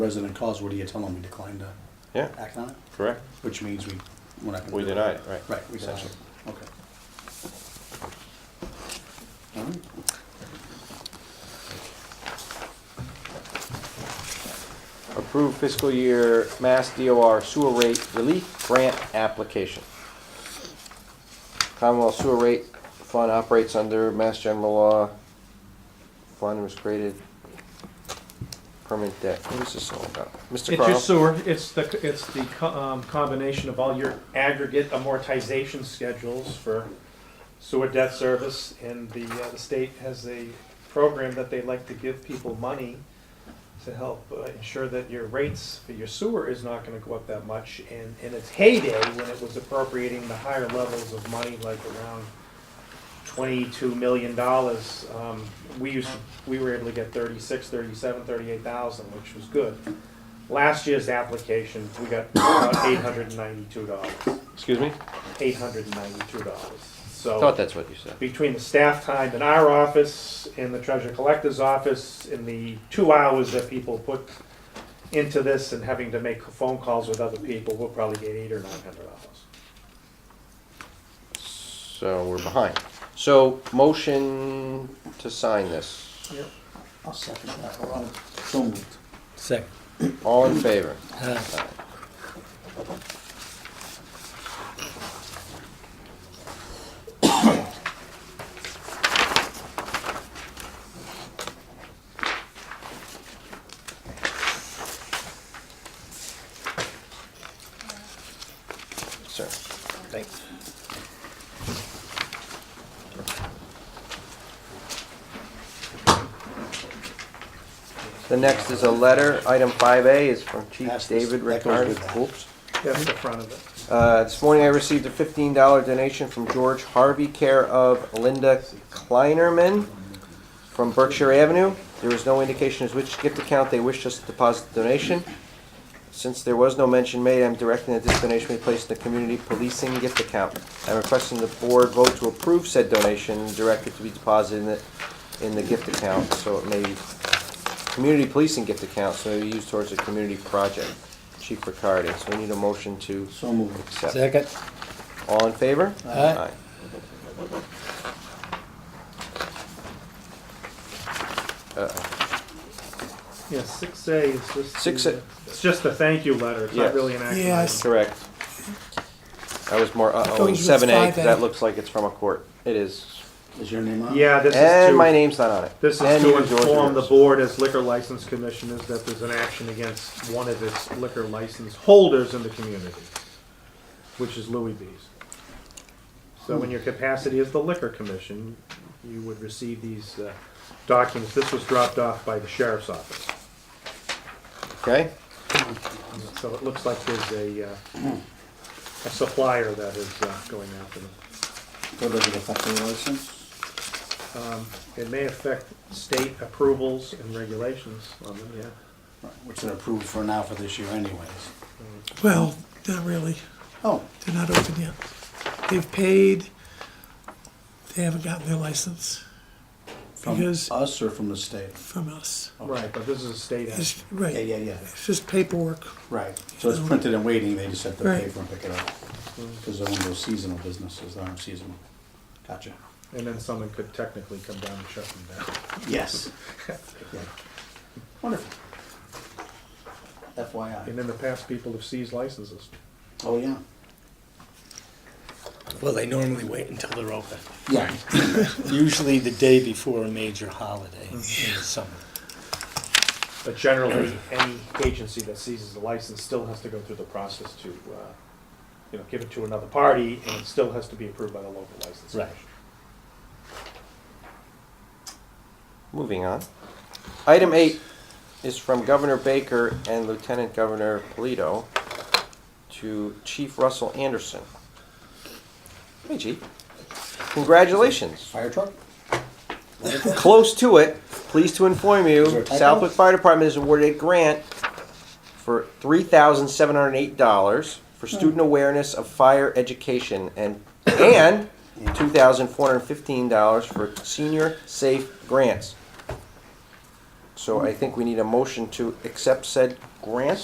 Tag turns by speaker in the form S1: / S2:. S1: resident calls, what do you tell them? We declined to
S2: Yeah,
S1: act on it,
S2: correct.
S1: which means we, we're not gonna.
S2: We
S1: do it.
S2: deny it, right.
S1: Right, we deny it. okay. All right.
S2: Approve fiscal year Mass DOR sewer rate relief grant application. Commonwealth Sewer Rate Fund operates under Mass General Law. Fund was created permanent debt. What is this all about? Mr.
S3: It's your
S2: Carl?
S3: sewer, it's the, it's the co- um, combination of all your aggregate amortization schedules for sewer debt service, and the, uh, the state has a program that they like to give people money to help uh, ensure that your rates for your sewer is not gonna go up that much, and in its heyday, when it was appropriating the higher levels of money, like around twenty-two million dollars, um, we used, we were able to get thirty-six, thirty-seven, thirty-eight thousand, which was good. Last year's application, we got about eight hundred and ninety-two dollars,
S2: Excuse me?
S3: eight hundred and ninety-two dollars.
S2: Thought
S3: So
S2: that's what you said.
S3: between the staff time in our office, in the treasure collector's office, in the two hours that people put into this and having to make phone calls with other people, we'll probably get eight or nine hundred dollars.
S2: So we're behind. So motion to sign this.
S1: I'll second that. Well, So moved. Uh,
S4: Second.
S2: All in favor?
S4: Aye.
S2: Sir.
S4: Thanks.
S2: The next is a letter, item 5A is from Chief
S1: Pass this.
S2: David
S1: That goes
S2: Ricard.
S1: with that.
S2: Oops.
S3: That's the front of it.
S2: Uh, This morning I received a $15 donation from George Harvey, care of Linda Kleinerman from Berkshire Avenue. There is no indication as which gift account they wish us to deposit the donation. Since there was no mention made, I'm directing that this donation be placed in the community policing gift account. I'm requesting the board vote to approve said donation and direct it to be deposited in the, in the gift account, so it may, community policing gift account, so it may be used towards a community project. Chief Riccardi, so we need a motion to
S1: So moved.
S2: accept.
S4: Second.
S2: All in favor?
S4: Aye.
S2: Uh,
S3: Yeah, six A is just.
S2: Six
S3: the-
S2: A-
S3: It's just a thank you letter, it's
S2: Yes.
S3: not really an action.
S5: Yeah, I
S3: item.
S5: see.
S2: Correct. I was more, uh-oh,
S5: Going with
S2: seven A,
S5: 5A.
S2: that looks like it's from a court. It is.
S1: Is your name on? it?
S3: Yeah, this is
S2: And my
S3: to,
S2: name's not on it.
S3: this is
S2: And
S3: to
S2: neither George
S3: inform the
S2: yours.
S3: board as liquor license commissioners that there's an action against one of its liquor license holders in the community, which is Louis B's. So in your capacity as the liquor commission, you would receive these uh, documents. This was dropped off by the sheriff's office.
S2: Okay,
S3: So it looks like there's a, uh, a supplier that is uh, going after them.
S1: So does it affect your license?
S3: It may affect state approvals and regulations on them, yeah.
S1: Right, Which they're approved for now for this year anyways.
S5: Well, not really.
S1: Oh,
S5: They're not open yet. They've paid. They haven't gotten their license
S1: from
S5: Because-
S1: us or from the state?
S5: from us.
S4: Oh.
S1: Okay.
S3: Right, but this is a state action.
S5: It's, right.
S1: Yeah, yeah, yeah,
S5: It's just paperwork.
S1: right. So it's printed and waiting, they just have to pay
S5: Right.
S1: for and pick it up. Because they're one of those seasonal businesses, they aren't seasonal. Gotcha.
S3: And then someone could technically come down and shut them down.
S1: Yes. Yeah. Wonderful. FYI.
S3: And in the past, people have seized licenses.
S1: Oh, yeah.
S4: Well, they normally wait until they're open,
S1: Yeah.
S4: usually the day before a major holiday in the summer.
S3: But generally, any agency that seizes a license still has to go through the process to, uh, you know, give it to another party, and it still has to be approved by the local license.
S4: Right.
S3: commission.
S2: moving on. Item eight is from Governor Baker and Lieutenant Governor Polito to Chief Russell Anderson. Hey, Chief. Congratulations.
S1: Fire truck?
S2: Close to it, pleased to inform
S1: Is there a
S2: you,
S1: typo?
S2: Southwick Fire Department has awarded a grant for three thousand seven hundred eight dollars for student awareness of fire education and, and two thousand four hundred fifteen dollars for senior safe grants. So I think we need a motion to accept said grant.